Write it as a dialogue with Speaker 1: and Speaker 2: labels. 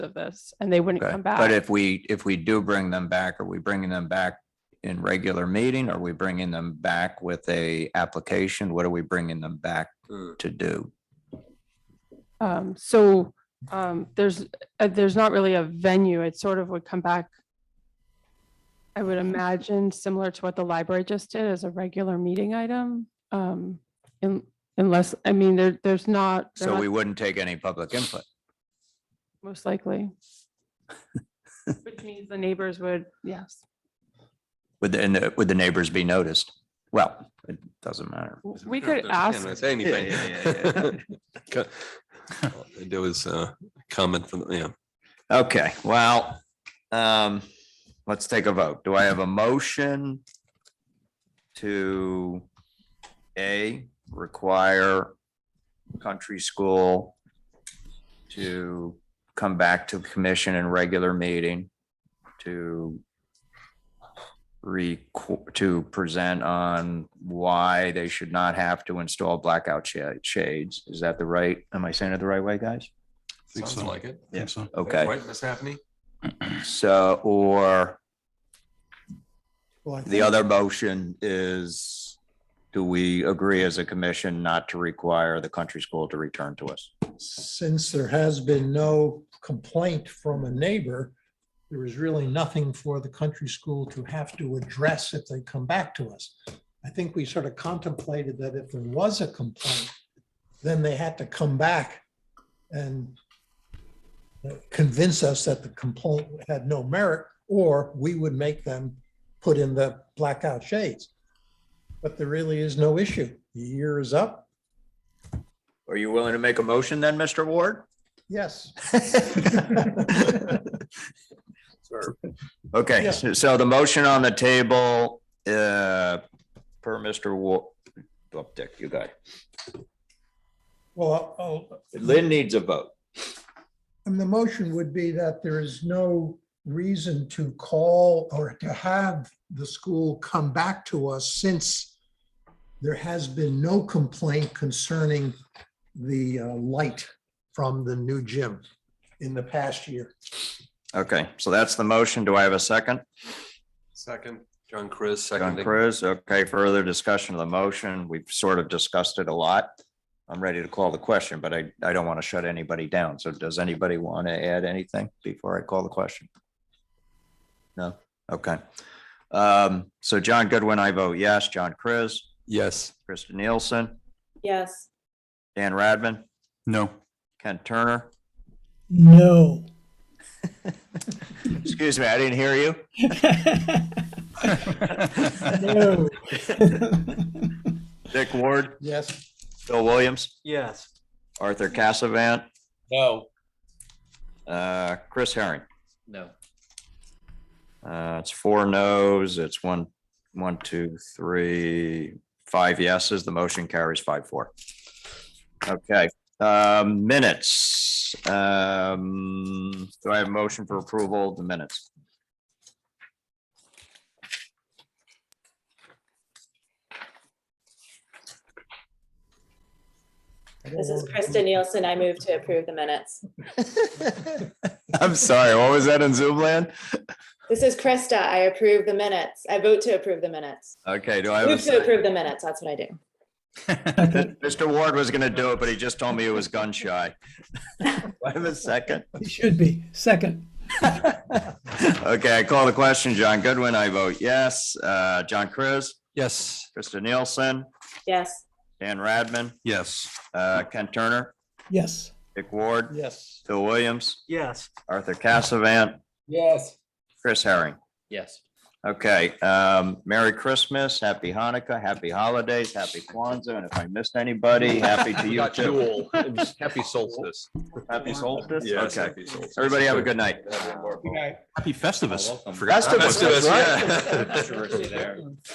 Speaker 1: of this and they wouldn't
Speaker 2: Okay,
Speaker 1: come back.
Speaker 2: but if we, if we do bring them back, are we bringing them back in regular meeting? Are we bringing them back with a application? What are we bringing them back
Speaker 3: Hmm.
Speaker 2: to do?
Speaker 1: Um, so, um, there's, uh, there's not really a venue. It sort of would come back. I would imagine similar to what the library just did as a regular meeting item. Um, in- unless, I mean, there, there's not. they're
Speaker 2: So
Speaker 1: not-
Speaker 2: we wouldn't take any public input.
Speaker 1: Most likely. Which means the neighbors would, yes.
Speaker 2: Would, the- and the- would the neighbors be noticed? Well, it doesn't matter.
Speaker 1: W- We
Speaker 3: I don't
Speaker 1: could
Speaker 3: know if
Speaker 1: ask,
Speaker 3: I'm gonna Say anything. Co- There was a uh, comment from, yeah,
Speaker 2: Okay, well, um, let's take a vote. Do I have a motion to A, require country school to come back to the commission in regular meeting to re, to present on why they should not have to install blackout sha- shades? Is that the right, am I saying it the right way, guys?
Speaker 4: Think
Speaker 3: sounds
Speaker 4: so.
Speaker 3: like it.
Speaker 2: Yeah.
Speaker 4: Think so.
Speaker 2: Okay.
Speaker 3: Right, Miss Happy?
Speaker 2: So, or
Speaker 5: Well, I
Speaker 2: the
Speaker 5: think-
Speaker 2: other motion is, do we agree as a commission not to require the country school to return to us?
Speaker 5: Since there has been no complaint from a neighbor, there is really nothing for the country school to have to address if they come back to us. I think we sort of contemplated that if there was a complaint, then they had to come back and convince us that the complaint had no merit, or we would make them put in the blackout shades. But there really is no issue. The year is up.
Speaker 2: Are you willing to make a motion then, Mr. Ward?
Speaker 5: Yes.
Speaker 2: Okay,
Speaker 5: Yeah.
Speaker 2: so so the motion on the table, uh, per Mr. Ward, oh, Dick, you got it.
Speaker 5: Well, I'll-
Speaker 2: Lynn needs a vote.
Speaker 5: and the motion would be that there is no reason to call or to have the school come back to us since there has been no complaint concerning the uh, light from the new gym in the past year.
Speaker 2: Okay, so that's the motion. Do I have a second?
Speaker 3: Second. John Chris,
Speaker 2: John
Speaker 3: second.
Speaker 2: Cruz, okay, further discussion of the motion. We've sort of discussed it a lot. I'm ready to call the question, but I, I don't want to shut anybody down. So does anybody want to add anything before I call the question? No, okay. Um, so John Goodwin, I vote yes. John Cruz,
Speaker 3: Yes.
Speaker 2: Krista Nielsen,
Speaker 6: Yes.
Speaker 2: Dan Radman,
Speaker 4: No.
Speaker 2: Ken Turner.
Speaker 7: No.
Speaker 2: Excuse me, I didn't hear you.
Speaker 7: No.
Speaker 2: Dick Ward,
Speaker 5: Yes.
Speaker 2: Phil Williams,
Speaker 8: Yes.
Speaker 2: Arthur Cassavant,
Speaker 8: No.
Speaker 2: uh, Chris Herring.
Speaker 8: No.
Speaker 2: Uh, it's four no's, it's one, one, two, three, five yeses. The motion carries five, four. Okay, um, minutes. Um, do I have a motion for approval of the minutes?
Speaker 6: This is Krista Nielsen. I move to approve the minutes.
Speaker 2: I'm sorry, what was that in Zoom land?
Speaker 6: This is Krista. I approve the minutes. I vote to approve the minutes.
Speaker 2: Okay, do I have, a
Speaker 6: Move to
Speaker 2: s-
Speaker 6: approve the minutes. That's what I do.
Speaker 2: Mr. Ward was gonna do it, but he just told me it was gun shy. Do I have a second.
Speaker 7: It should be. Second.
Speaker 2: Okay, I call the question. John Goodwin, I vote yes. Uh, John Cruz,
Speaker 3: Yes.
Speaker 2: Krista Nielsen,
Speaker 6: Yes.
Speaker 2: Dan Radman,
Speaker 4: Yes.
Speaker 2: uh, Ken Turner,
Speaker 7: Yes.
Speaker 2: Dick Ward,
Speaker 5: Yes.
Speaker 2: Phil Williams,
Speaker 8: Yes.
Speaker 2: Arthur Cassavant,
Speaker 8: Yes.
Speaker 2: Chris Herring.
Speaker 8: Yes.
Speaker 2: Okay, um, Merry Christmas, Happy Hanukkah, Happy Holidays, Happy Kwanzaa, and if I missed anybody, happy to you too.
Speaker 3: Happy solstice.
Speaker 2: Happy solstice.
Speaker 3: Yes,
Speaker 2: Okay,
Speaker 3: happy solstice.
Speaker 2: everybody have a good night.
Speaker 4: Happy
Speaker 2: Festivus,
Speaker 4: Festivus.
Speaker 3: Oh, Festivus,
Speaker 2: that's right.
Speaker 3: yeah.
Speaker 8: Controversy there.